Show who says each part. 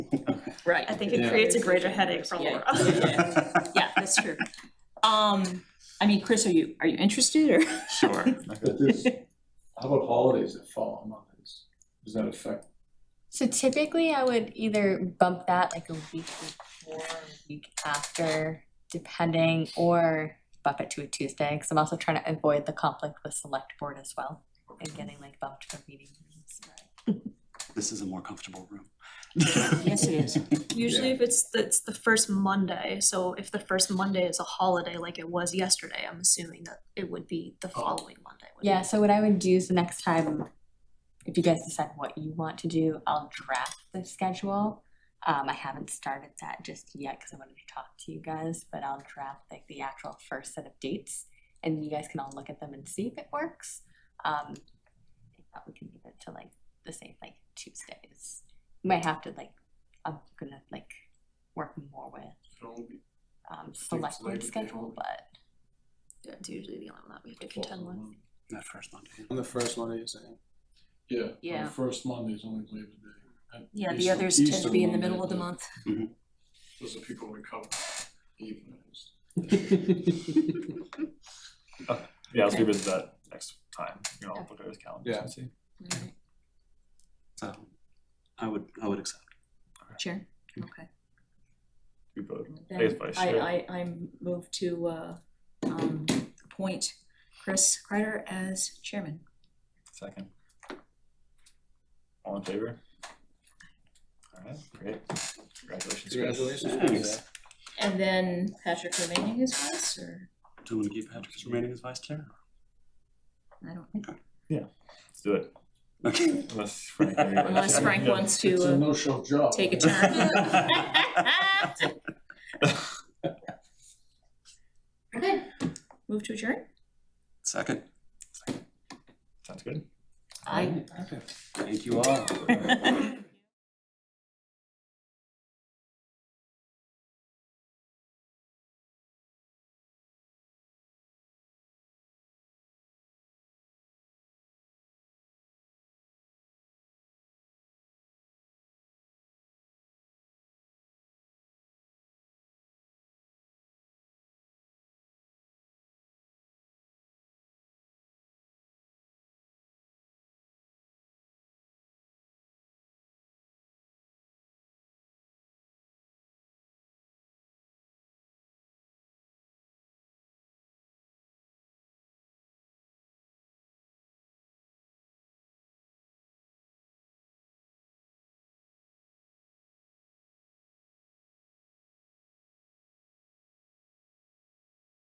Speaker 1: Right,
Speaker 2: I think it
Speaker 3: Yeah.
Speaker 2: creates a greater headache for
Speaker 1: Yeah.
Speaker 2: Laura.
Speaker 1: yeah, that's true. Um, I mean, Chris, are you, are you interested or?
Speaker 4: Sure.
Speaker 3: But this- How about holidays that fall on Mondays? Does that affect?
Speaker 5: So typically I would either bump that like a week before, or a week after, depending, or bump it to a Tuesday, because I'm also trying to avoid the conflict with select board as well, and getting like bumped from meetings.
Speaker 4: This is a more comfortable room.
Speaker 1: Yes, it is.
Speaker 2: Usually if it's, it's the first Monday, so if the first Monday is a holiday like it was yesterday, I'm assuming that it would be
Speaker 3: Oh.
Speaker 2: the following Monday. wouldn't
Speaker 5: Yeah, so what I would do is the next time, if you guys decide what you want to do, I'll draft the schedule. Um, I haven't started that just yet because I wanted to talk to you guys, but I'll draft like the actual first set of dates and you guys can all look at them and see if it works. Um, I thought we could give it to like the same like Tuesdays. Might have to like, I'm gonna like work more with um select
Speaker 3: Labor
Speaker 5: board
Speaker 3: Day
Speaker 5: schedule,
Speaker 3: holiday.
Speaker 5: but
Speaker 2: it? Yeah, It's usually the only one that we have to contend with.
Speaker 4: That first Monday.
Speaker 6: On the first one, are you saying?
Speaker 3: Yeah, on
Speaker 1: Yeah.
Speaker 3: the first Monday is only Labor Day. And
Speaker 1: Yeah, the
Speaker 3: Easter-
Speaker 1: others tend
Speaker 3: Easter
Speaker 1: to be in the
Speaker 3: Monday,
Speaker 1: middle of the
Speaker 3: yeah.
Speaker 1: month.
Speaker 3: Those are people we cover evenings.
Speaker 7: Yeah, let's revisit that next time, you know,
Speaker 5: Okay.
Speaker 7: look at his calendar
Speaker 6: Yeah.
Speaker 7: and see.
Speaker 4: So I would, I would accept.
Speaker 1: Sure, okay.
Speaker 7: We vote.
Speaker 1: Then
Speaker 7: Please, Vice
Speaker 1: I,
Speaker 7: Chair.
Speaker 1: I, I move to, uh, um, appoint Chris Kreider as chairman.
Speaker 7: Second. All in favor? Alright, great. Congratulations. Chris.
Speaker 6: Congratulations.
Speaker 4: Thanks.
Speaker 1: And then Patrick remaining as vice, or,
Speaker 4: Do you want to keep Patrick as remaining as vice chair?
Speaker 1: I don't think,
Speaker 7: Let's do it.
Speaker 4: Okay.
Speaker 7: Unless Frank.
Speaker 1: unless Frank wants
Speaker 3: It's a
Speaker 1: to, uh,
Speaker 3: no-show job.
Speaker 1: take a turn. Okay, move to adjourn?
Speaker 4: Second.
Speaker 7: Sounds good.
Speaker 1: I.
Speaker 3: Okay.
Speaker 4: Thank you all.